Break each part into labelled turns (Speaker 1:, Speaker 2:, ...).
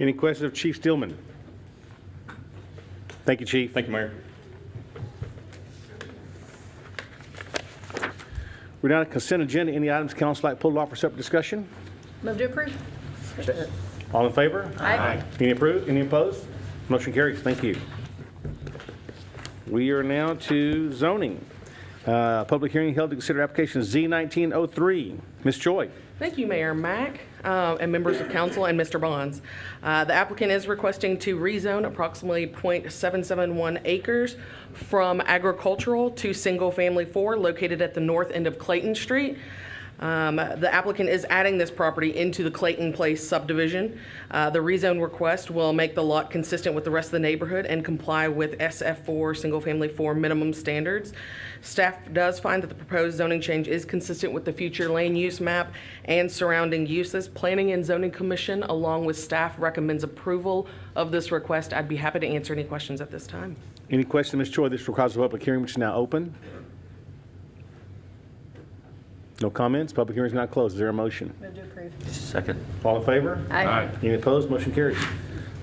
Speaker 1: Any questions of Chief Stillman? Thank you, Chief.
Speaker 2: Thank you, Mayor.
Speaker 1: We're down to consent agenda. Any items council like pulled off for separate discussion?
Speaker 3: Move to approve.
Speaker 1: All in favor?
Speaker 3: Aye.
Speaker 1: Any approved, any opposed? Motion carries, thank you. We are now to zoning. Uh, Public hearing held to consider application Z1903. Ms. Choi,
Speaker 4: Thank you, Mayor Mack, uh, and members of council, and Mr. Bonds. Uh, The applicant is requesting to rezone approximately .771 acres from agricultural to single-family four located at the north end of Clayton Street. Um, The applicant is adding this property into the Clayton Place subdivision. Uh, The rezone request will make the lot consistent with the rest of the neighborhood and comply with SF4, single-family four minimum standards. Staff does find that the proposed zoning change is consistent with the future lane use map and surrounding uses. Planning and Zoning Commission, along with staff, recommends approval of this request. I'd be happy to answer any questions at this time.
Speaker 1: any question, Ms. Choi? This requires a public hearing, which is now open. No comments, public hearing is not closed. Is there a motion?
Speaker 3: Move to approve.
Speaker 5: Second.
Speaker 1: All in favor?
Speaker 3: Aye.
Speaker 1: Any opposed? Motion carries.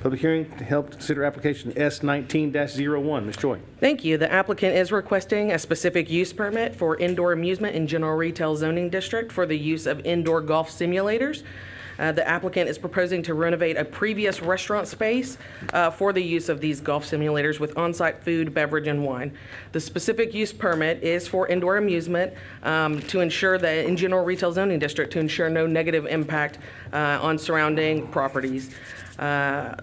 Speaker 1: Public hearing to help consider application S19-01. Ms. Choi.
Speaker 4: Thank you. The applicant is requesting a specific use permit for indoor amusement in general retail zoning district for the use of indoor golf simulators. Uh, The applicant is proposing to renovate a previous restaurant space uh, for the use of these golf simulators with on-site food, beverage, and wine. The specific use permit is for indoor amusement um, to ensure that, in general retail zoning district, to ensure no negative impact uh, on surrounding properties. Uh,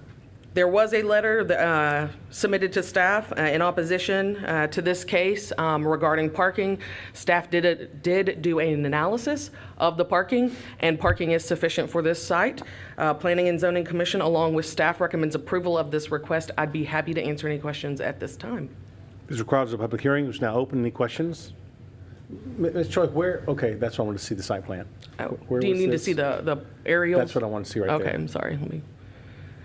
Speaker 4: there was a letter that, uh, submitted to staff uh, in opposition uh, to this case um, regarding parking. Staff did, a- did do an analysis of the parking, and parking is sufficient for this site. Uh, Planning and Zoning Commission, along with staff, recommends approval of this request. I'd be happy to answer any questions at this time.
Speaker 1: This requires a public hearing, which is now open. Any questions? M- Ms. Choi, where, okay, that's what I want to see, the site plan.
Speaker 4: Oh,
Speaker 1: Where
Speaker 4: Do you
Speaker 1: was
Speaker 4: need to
Speaker 1: this?
Speaker 4: see the, the aerials?
Speaker 1: That's what I want to see right
Speaker 4: Okay,
Speaker 1: there.
Speaker 4: I'm sorry, let me,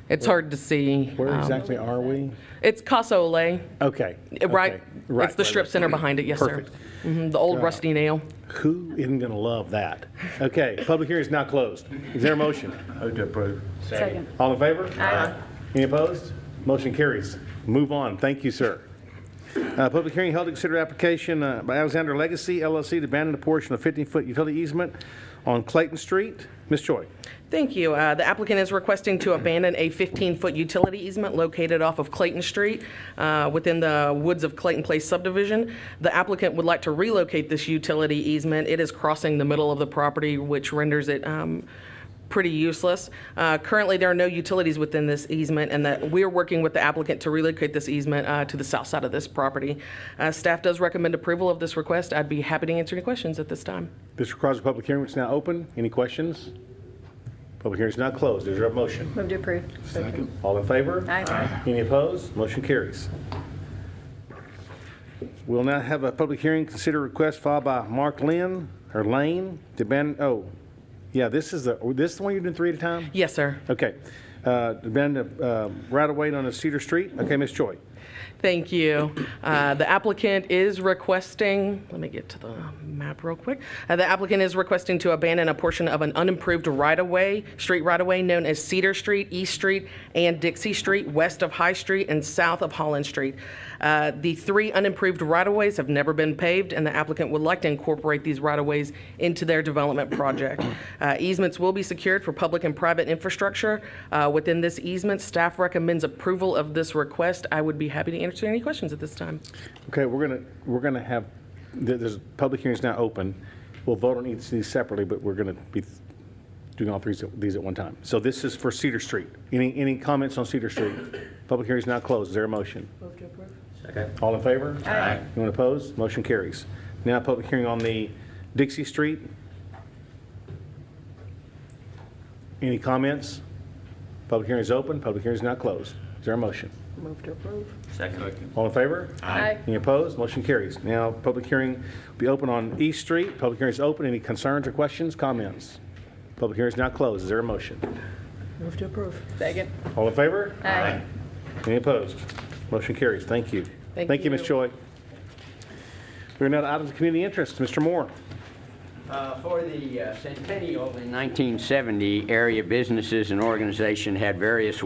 Speaker 4: it's hard to see.
Speaker 1: Where
Speaker 4: um,
Speaker 1: exactly are we?
Speaker 4: It's Casa Olay,
Speaker 1: Okay.
Speaker 4: right?
Speaker 1: okay, right,
Speaker 4: It's the
Speaker 1: right,
Speaker 4: strip
Speaker 1: right.
Speaker 4: center behind it, yes, sir.
Speaker 1: Perfect. Uh,
Speaker 4: Mhm, The old rusty nail.
Speaker 1: Who isn't going to love that? Okay, public hearing is now closed. Is there a motion?
Speaker 5: Move to approve.
Speaker 3: Second.
Speaker 1: All in favor?
Speaker 3: Aye.
Speaker 1: Any opposed? Motion carries. Move on. Thank you, sir. Uh, Public hearing held to consider application uh, by Alexander Legacy LLC to abandon a portion of 15-foot utility easement on Clayton Street. Ms. Choi.
Speaker 4: Thank you. Uh, The applicant is requesting to abandon a 15-foot utility easement located off of Clayton Street uh, within the Woods of Clayton Place subdivision. The applicant would like to relocate this utility easement. It is crossing the middle of the property, which renders it um, pretty useless. Uh, Currently, there are no utilities within this easement, and that we are working with the applicant to relocate this easement uh, to the south side of this property. Uh, Staff does recommend approval of this request. I'd be happy to answer any questions at this time.
Speaker 1: This requires a public hearing, which is now open. Any questions? Public hearing is now closed. Is there a motion?
Speaker 3: Move to approve.
Speaker 5: Second.
Speaker 1: All in favor?
Speaker 3: Aye.
Speaker 1: Any opposed? Motion carries. We'll now have a public hearing, consider request filed by Mark Lynn, or Lane, to ban, oh, yeah, this is the, this the one you're doing three at a time?
Speaker 4: Yes, sir.
Speaker 1: Okay. Uh, To ban the uh, right of way on a Cedar Street. Okay, Ms. Choi.
Speaker 4: Thank you. Uh, The applicant is requesting, let me get to the map real quick. Uh, The applicant is requesting to abandon a portion of an unimproved right-of-way, street right-of-way known as Cedar Street, East Street, and Dixie Street, west of High Street and south of Holland Street. Uh, The three unimproved right-of-ways have never been paved, and the applicant would like to incorporate these right-of-ways into their development project. Uh, Easements will be secured for public and private infrastructure. Uh, Within this easement, staff recommends approval of this request. I would be happy to answer any questions at this time.
Speaker 1: Okay, we're going to, we're going to have, there- there's, public hearing's now open. We'll vote on each of these separately, but we're going to be doing all three of these at one time. So this is for Cedar Street. Any, any comments on Cedar Street? Public hearing's now closed. Is there a motion?
Speaker 3: Move to approve.
Speaker 5: Second.
Speaker 1: All in favor?
Speaker 3: Aye.
Speaker 1: Anyone opposed? Motion carries. Now, public hearing on the Dixie Street. Any comments? Public hearing is open, public hearing is now closed. Is there a motion?
Speaker 3: Move to approve.
Speaker 5: Second.
Speaker 1: All in favor?
Speaker 3: Aye.
Speaker 1: Any opposed? Motion carries. Now, public hearing will be open on East Street. Public hearing is open. Any concerns or questions, comments? Public hearing is now closed. Is there a motion?
Speaker 3: Move to approve. Second.
Speaker 1: All in favor?
Speaker 3: Aye.
Speaker 1: Any opposed? Motion carries. Thank you.
Speaker 4: Thank
Speaker 1: Thank you, Ms.
Speaker 4: you.
Speaker 1: Choi. We're now to items of community interest. Mr. Moore.
Speaker 2: Uh, For the uh, centennial in 1970, area businesses and organizations had various